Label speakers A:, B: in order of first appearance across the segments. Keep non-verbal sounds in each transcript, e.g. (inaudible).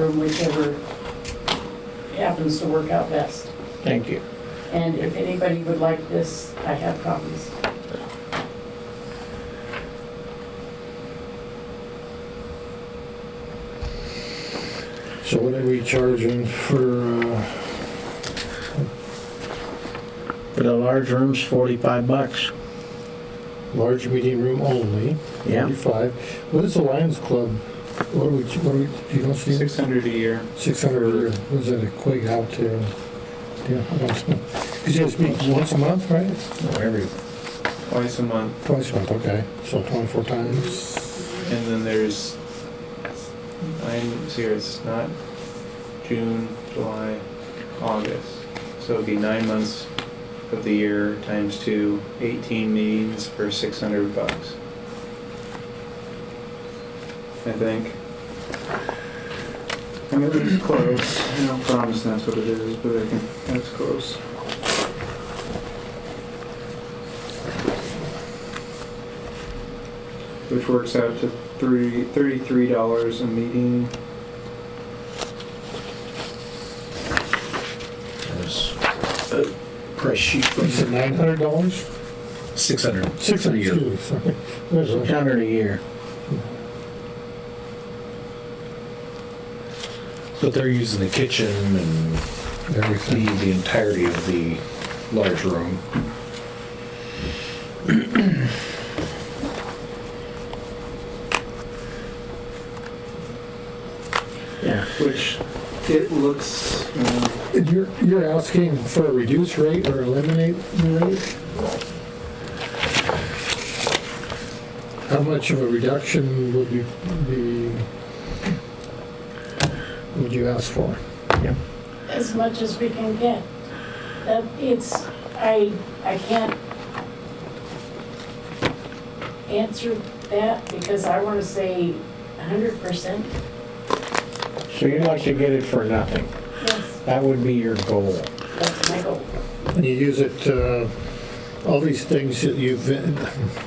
A: them whichever happens to work out best.
B: Thank you.
A: And if anybody would like this, I have copies.
B: So what are we charging for, uh, for the large rooms, forty-five bucks?
C: large meeting room only,
B: Yeah.
C: forty-five. What is the Lions Club? What do we, what do we, do you know, Steve?
D: Six hundred a year.
C: Six hundred a year, was that a quig out there? Yeah, I don't know. You just meet once a month, right?
B: Every,
D: Twice a month,
C: Twice a month, okay, so twenty-four times.
D: and then there's, I'm serious, not June, July, August. So it'd be nine months of the year times two, eighteen meetings for six hundred bucks. I think. I mean, it's close, I don't promise that's what it is, but I think that's close. which works out to three, thirty-three dollars a meeting.
E: uh,
B: price sheet
C: You said nine hundred dollars?
E: Six hundred.
C: Six hundred, excuse me, sorry. There's
B: Six
C: a-
B: hundred a year.
E: But they're using the kitchen and the,
C: Everything.
E: the entirety of the large room.
B: Yeah.
D: Which, it looks, uh,
C: And You're, you're asking for a reduced rate or eliminate the rate? How much of a reduction would you be, would you ask for?
A: as much as we can get. That, it's, I, I can't answer that because I wanna say hundred percent
B: So you'd like to get it for nothing.
A: yes,
B: That would be your goal.
A: that's my goal.
C: And you use it, uh, all these things that you've,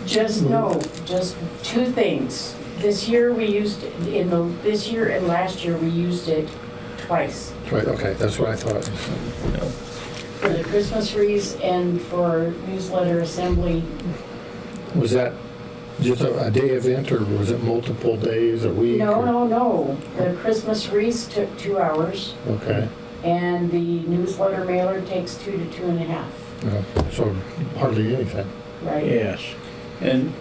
C: (laughs)
A: Just know, just two things. This year we used, in the, this year and last year, we used it twice.
C: right, okay, that's what I thought.
A: For the Christmas wreaths and for newsletter assembly,
C: Was that just a a day event or was it multiple days, a week?
A: no,
C: or-
A: no, no. The Christmas wreaths took two hours.
C: Okay,
A: And the newsletter mailer takes two to two and a half,
C: no, so hardly anything.
A: right?
B: Yes.
D: and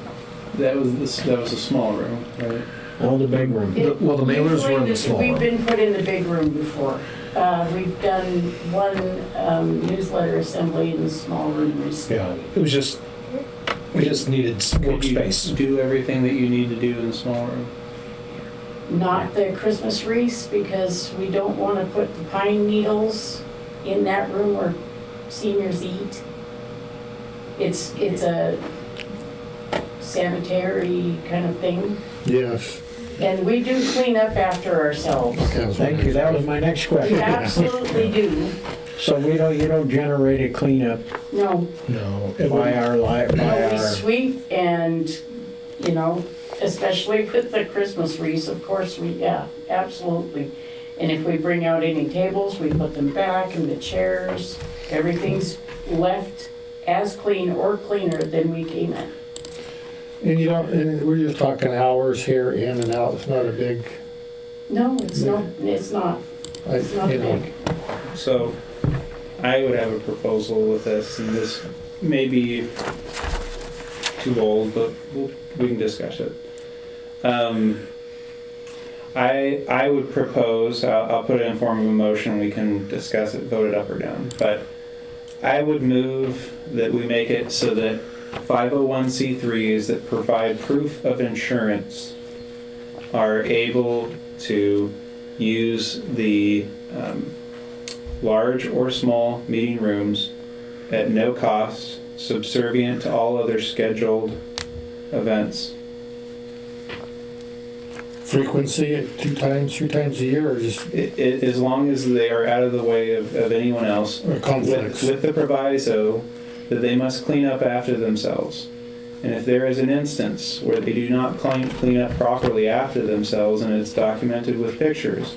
D: that was, this, that was a small room, right?
B: All the big rooms.
A: It-
E: Well, the mailers were in the
A: usually
E: small
A: We've
E: room.
A: been put in the big room before. Uh, We've done one um, newsletter assembly in the small room recently.
E: Yeah, it was just, we just needed s-
D: Could you
E: workspace.
D: Do everything that you need to do in the small room.
A: Not the Christmas wreaths because we don't want to put the pine needles in that room where seniors eat. It's, it's a sanitary kind of thing.
C: Yes.
A: And we do clean up after ourselves.
C: okay, I was
B: Thank you,
C: wondering.
B: that was my next
A: We
B: question.
A: absolutely do.
B: So we don't, you don't generate a cleanup
A: No,
E: No, it
B: by
E: wouldn't-
B: our li, by
A: no, we
B: our,
A: sweep and, you know, especially with the Christmas wreaths, of course, we, yeah, absolutely. And if we bring out any tables, we put them back and the chairs, everything's left as clean or cleaner than we came in.
C: And you don't, and we're just talking hours here, in and out, it's not a big,
A: No, it's not, it's not,
C: I-
A: it's not
C: you know,
A: big.
D: So, I would have a proposal with this, and this may be too old, but we'll- we can discuss it. Um, I, I would propose, I'll, I'll put it in form of a motion, we can discuss it, vote it up or down, but I would move that we make it so that 501c3s that provide proof of insurance are able to use the um, large or small meeting rooms at no cost, subservient to all other scheduled events.
C: frequency, two times, three times a year, or just
D: I i as long as they are out of the way of, of anyone else,
C: or
D: with,
C: conflicts?
D: with the proviso that they must clean up after themselves. And if there is an instance where they do not clean, clean up properly after themselves and it's documented with pictures,